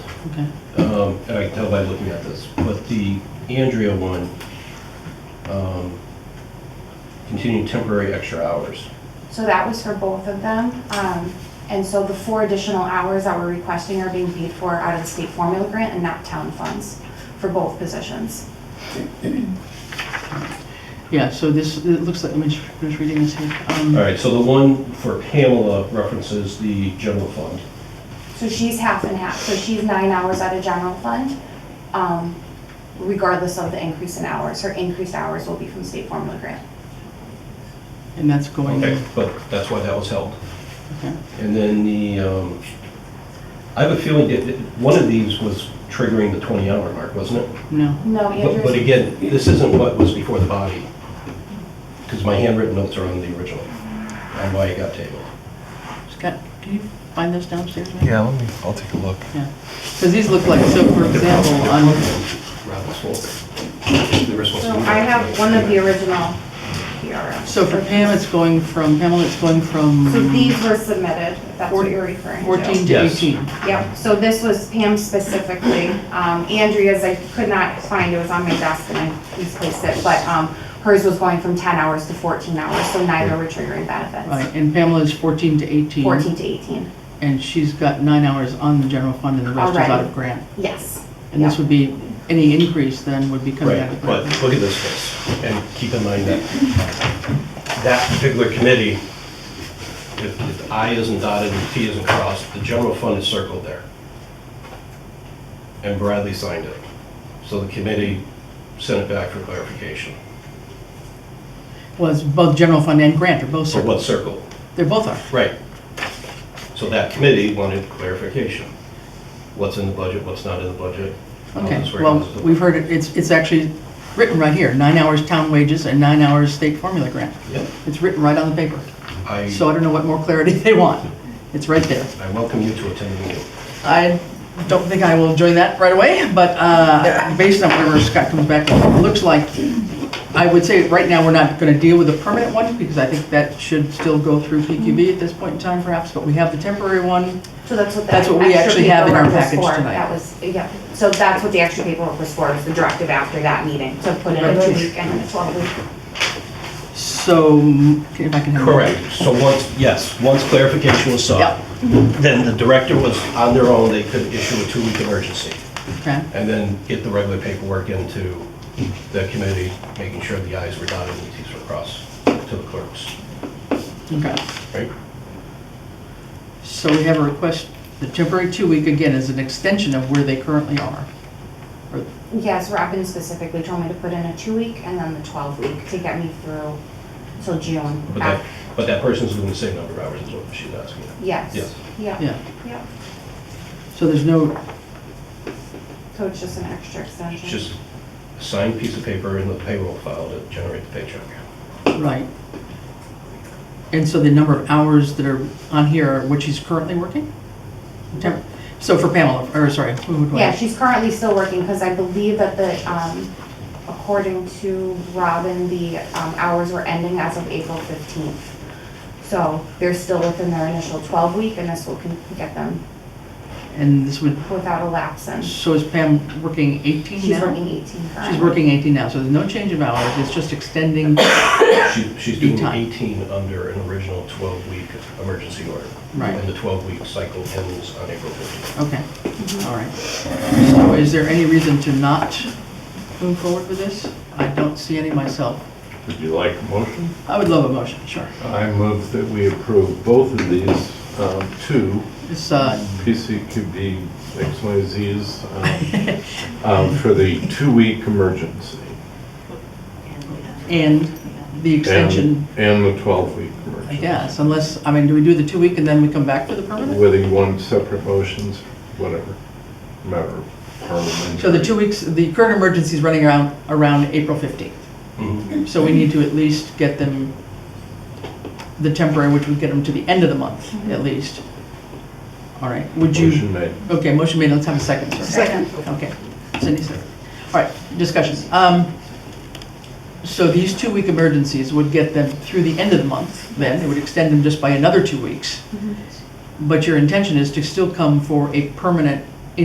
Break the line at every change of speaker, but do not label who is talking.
Okay.
um, and I can tell by looking at this, but the Andrea one, um, continued temporary extra hours.
So that was for both of them. Um, and so the four additional hours that we're requesting are being paid for out of the state formula grant and not town funds for both positions.
Yeah, so this, it looks like, I'm just I'm just reading this here. Um,
All right, so the one for Pamela references the general fund.
So she's half and half, so she's nine hours out of general fund, um, regardless of the increase in hours. Her increased hours will be from state formula grant.
And that's going,
Okay,
okay.
but that's why that was held. And then the, um, I have a feeling that that one of these was triggering the 20-hour mark, wasn't it?
No,
No,
But but
Andrew's,
again, this isn't what was before the body, because my handwritten notes are on the original, on why it got tabled.
Scott, can you find those downstairs? maybe?
Yeah, let me, I'll take a look.
Yeah, because these look like, so for example, on,
Rob was full. They were supposed
so
to be-
I have one of the original PRFs.
so for Pam, it's going from, Pamela, it's going
So
from
these were submitted, if that's what you're referring to.
14 to
Yes.
18.
Yep, so this was Pam specifically. Um, Andrea's, I could not find, it was on my desk and I misplaced it, but, um, hers was going from ten hours to fourteen hours, so neither were triggering benefits.
Right, and Pamela's 14 to 18.
Fourteen to eighteen,
And she's got nine hours on the general fund and the rest is out
Already.
of grant.
yes.
And this would be, any increase then would be coming
Right,
out of
but
grant.
look at this case, and keep in mind that that particular committee, if if I isn't dotted and T isn't crossed, the general fund is circled there. And Bradley signed it. So the committee sent it back for clarification.
Well, it's both general fund and grant are both
So what
circled.
circle?
They're both are.
Right. So that committee wanted clarification. What's in the budget, what's not in the budget? how
Okay,
this
well,
organizes it.
we've heard it, it's, it's actually written right here, nine hours town wages and nine hours state formula grant.
Yep.
It's written right on the paper. So
I,
I don't know what more clarity they want. It's right there.
I welcome you to attend the meeting.
I don't think I will join that right away, but uh, based on whatever Scott comes back with, it looks like, I would say, right now, we're not going to deal with the permanent one, because I think that should still go through PQB at this point in time perhaps, but we have the temporary one.
So that's what the
That's what we
extra
actually have in our
paperwork was
package
for.
tonight.
That was, yeah, so that's what the extra paperwork was for, was the directive after that meeting, to put in a
Right.
two-week and then a twelve-week.
So, if I can have.
Correct. So once, yes, once clarification was
Yep.
sought, then the director was on their own, they could issue a two-week emergency
Okay,
and then get the regular paperwork into the committee, making sure the i's were dotted and the t's were crossed to the clerks,
okay.
right?
So we have a request, the temporary two-week, again, is an extension of where they currently are. Or-
Yes, Robin specifically told me to put in a two-week and then the twelve-week to get me through till June.
But that, but that person's doing the same number of hours is what she's asking.
Yes.
Yes.
Yeah,
Yeah,
yeah.
so there's no,
So it's just an extra extension?
It's just a signed piece of paper in the payroll file to generate the paycheck.
right. And so the number of hours that are on here are what she's currently working? Temp- So for Pamela, or sorry, who do I?
Yeah, she's currently still working, because I believe that the, um, according to Robin, the, um, hours were ending as of April fifteenth. So they're still within their initial twelve week, and this will con- get them
And this would,
without a lapse in.
so is Pam working 18
She's
now?
working eighteen currently.
She's working 18 now, so there's no change of hours, it's just extending,
She- She's
Be
doing
time.
18 under an original 12-week emergency order.
Right.
And the 12-week cycle ends on April 15th.
okay,
Mm-hmm.
all right. So is there any reason to not move forward with this? I don't see any myself.
Would you like a motion?
I would love a motion, sure.
I move that we approve both of these, um, two
It's, uh,
PCQB XYZs um, um, for the two-week emergency.
and the
and-
extension,
And the 12-week
I
emergency.
guess, unless, I mean, do we do the two-week and then we come back to the permanent?
Whether you want separate motions, whatever, matter of parliamentary.
So the two weeks, the current emergency is running around, around April 15th. So we need to at least get them, the temporary, which would get them to the end of the month, at least. All right, would you,
Motion made.
okay, motion made, let's have a second, sir.
Second.
Okay, Cindy, second. All right, discussion. Um, So these two-week emergencies would get them through the end of the month, then, it would extend them just by another two weeks. But your intention is to still come for a permanent